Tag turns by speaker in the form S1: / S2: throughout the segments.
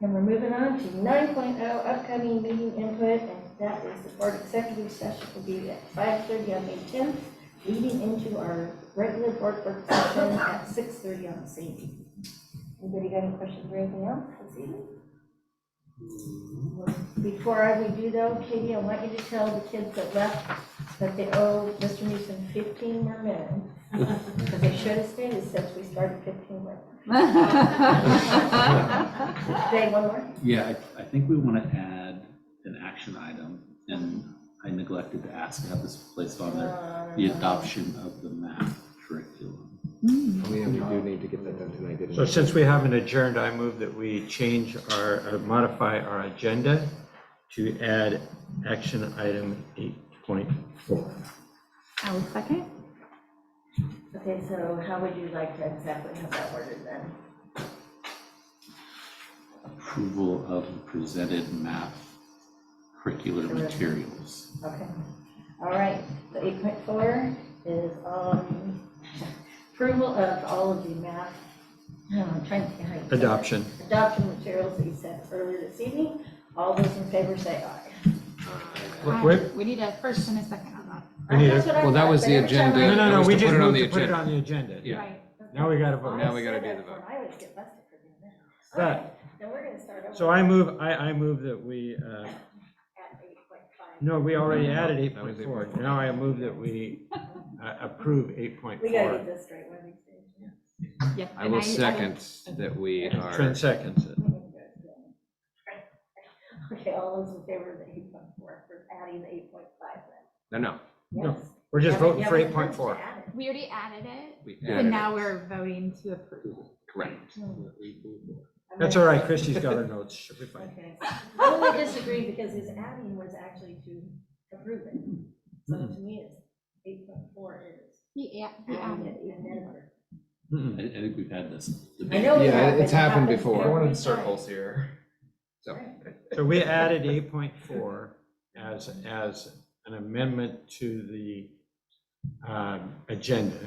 S1: And we're moving on to nine oh upcoming meeting input, and that is the board executive session will be at five thirty on May tenth, leading into our regular board work session at six thirty on the same evening. Anybody got any questions or anything else this evening? Before I we do though, Katie, I want you to tell the kids that left that they owe Mr. Newsom fifteen more minutes. Because they should have stayed since we started fifteen more. Today, one more?
S2: Yeah, I, I think we want to add an action item, and I neglected to ask to have this placed on there, the adoption of the math curriculum.
S3: We do need to get that done tonight, didn't
S4: So
S3: we?
S4: since we haven't adjourned, I move that we change our, or modify our agenda to add action item 8.4.
S5: I will second.
S1: Okay, so how would you like to exactly have that worded then?
S2: Approval of presented math curricular materials.
S1: Okay, all right, the eight point four is, um, approval of all of the math, I'm trying to think how you. said it.
S4: Adoption.
S1: Adoption materials that you sent earlier this evening, all those in favor say aye.
S4: Wait, wait.
S5: Ah, We need a first and a second on that.
S4: We need a-
S1: That's what I
S3: well, that
S1: thought,
S3: was
S1: but
S3: the
S1: every time
S3: agenda.
S4: No,
S1: I-
S4: no,
S3: It
S4: no,
S3: was
S4: we
S3: to
S4: just
S3: put it on the
S4: moved to put it
S3: agenda.
S4: on the agenda.
S3: Yeah.
S5: Right.
S4: Now we gotta
S1: I
S4: vote.
S3: Now we gotta
S1: said
S3: do
S1: it
S3: the vote.
S1: when I would get busted for doing that. All
S4: But-
S1: right, then we're gonna start over.
S4: So I move, I, I move that we, uh,
S1: At eight point five.
S4: no, we already added
S3: That was
S4: 8.4. Now I move that we uh, approve
S1: We gotta
S4: 8.4.
S1: get this straight one of these days.
S5: Yep.
S3: I
S5: and
S3: will second that we
S4: Trent
S3: are,
S4: seconds it.
S1: Okay, all those in favor of the eight point four, for adding the eight point five then?
S3: no, no,
S4: No,
S1: Yes.
S4: We're just
S1: Yeah, but-
S4: voting
S1: yeah,
S4: for
S1: but we're
S4: 8.4.
S1: to add it.
S5: We already added it,
S3: we
S5: and
S3: added it,
S5: now we're voting to approve it.
S3: correct.
S1: I'm
S4: That's all
S1: gonna-
S4: right, Christie's got her notes, she'll be fine.
S1: Okay. I only disagree because his adding was actually to approve it. So to me, it's eight point four is
S5: He a- he
S1: adding
S5: added
S1: it and
S5: it.
S1: then.
S4: Mm-mm.
S2: I, I think we've had this
S1: I
S2: debate.
S1: know we
S3: Yeah,
S1: have,
S3: it's
S1: but it
S3: happened
S1: happens
S3: before.
S1: every
S3: We're
S1: time.
S3: here. So,
S4: So we added eight point four as, as an amendment to the um, agenda.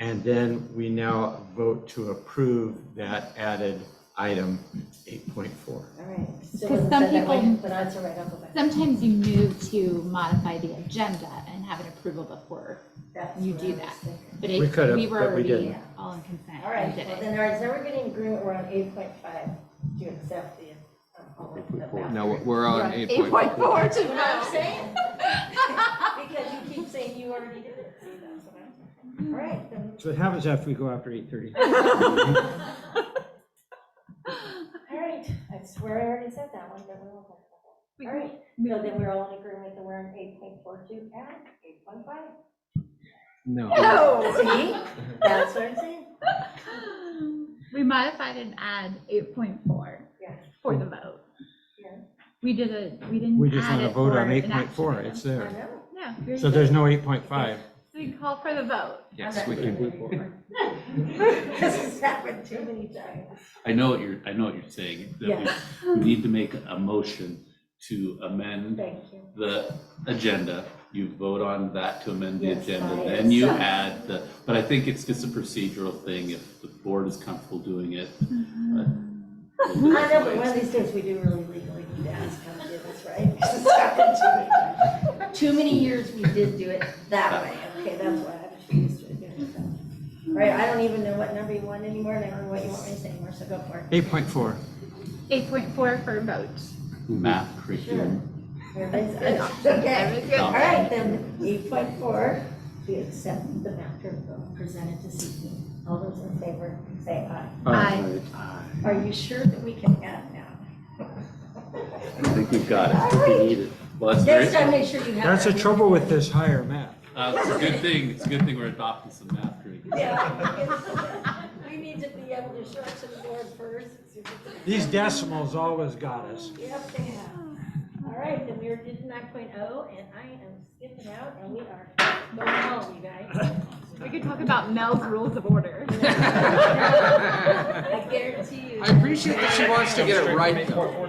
S4: And then we now vote to approve that added item eight point four.
S1: All right. Still
S5: 'Cause
S1: wasn't
S5: some
S1: said that way,
S5: people-
S1: But that's all right, I'll go back.
S5: Sometimes you move to modify the agenda and have an approval before,
S1: That's
S5: you
S1: what
S5: do
S1: I was
S5: that.
S1: thinking.
S5: but
S4: We
S5: it,
S4: could've,
S5: we were
S4: but we
S5: already
S4: didn't.
S5: all in consent.
S1: All
S5: We
S1: right,
S5: did
S1: well
S5: it.
S1: then, all right, so we're getting agreement, we're on eight point five to accept the. uh, all of the
S2: 8.4.
S3: no, we're on eight point
S5: Point
S3: four.
S5: four to
S1: That's what I'm
S5: vote.
S1: saying. Because you keep saying you already did it, see, that's what I'm saying. All right, then,
S4: So what happens after we go after eight thirty?
S1: all right, I swear I already said that one, but we won't talk about that. All right,
S5: We-
S1: so then we're all in agreement that we're on eight point four two and eight point five.
S3: No,
S1: See, that's what I'm saying.
S5: We modified and add eight point four
S1: Yeah.
S5: for the vote.
S1: Yeah.
S5: We did a, we didn't.
S4: We just
S5: add
S4: want to
S5: it
S4: vote
S5: for
S4: on
S5: an
S4: eight
S5: action
S4: point four,
S5: item.
S4: it's
S1: I
S4: there.
S1: know.
S5: No, you're,
S4: So there's no eight point five.
S5: we call for the vote.
S3: yes, we can,
S1: This has happened too many times.
S2: I know what you're, I know what you're saying, that
S1: Yes.
S2: we we need to make a motion to amend
S1: Thank you.
S2: the agenda, you vote on that to amend the
S1: Yes,
S2: agenda,
S1: I
S2: then you
S1: accept.
S2: add the, but I think it's just a procedural thing, if the board is comfortable doing it. uh, we'll do
S1: I
S2: it
S1: know, but
S2: this
S1: one
S2: way.
S1: of these days, we do really legally need to ask how to do this, right? This has happened too many times. Too many years we did do it that way, okay, that's why I'm just used to doing it that way. Right, I don't even know what number you want anymore, and I don't know what you want me to say anymore, so go for it.
S4: Eight point four.
S5: Eight point four for a vote.
S2: Math curriculum,
S1: Everybody's good,
S5: Adoption.
S1: okay.
S5: Everything's good.
S1: All right, then, eight point four, we accept the matter presented this evening. All those in favor, say aye.
S5: Aye.
S1: Are you sure that we can add now?
S2: I think we've got it, I think we need it. Well, that's
S1: Next time,
S2: very,
S1: make sure you have.
S4: That's the
S1: everything.
S4: trouble with this higher math.
S2: uh, it's a good thing, it's a good thing we're adopting some math curriculum.
S1: Yeah, we need to be able to show it to the board first.
S4: These decimals always got us.
S1: Yep, they have. All right, then we are did nine and I am skipping out, and we are going home, you guys.
S5: We could talk about Mel's rules of order.
S1: I guarantee you.
S3: I appreciate that she wants to get it right though.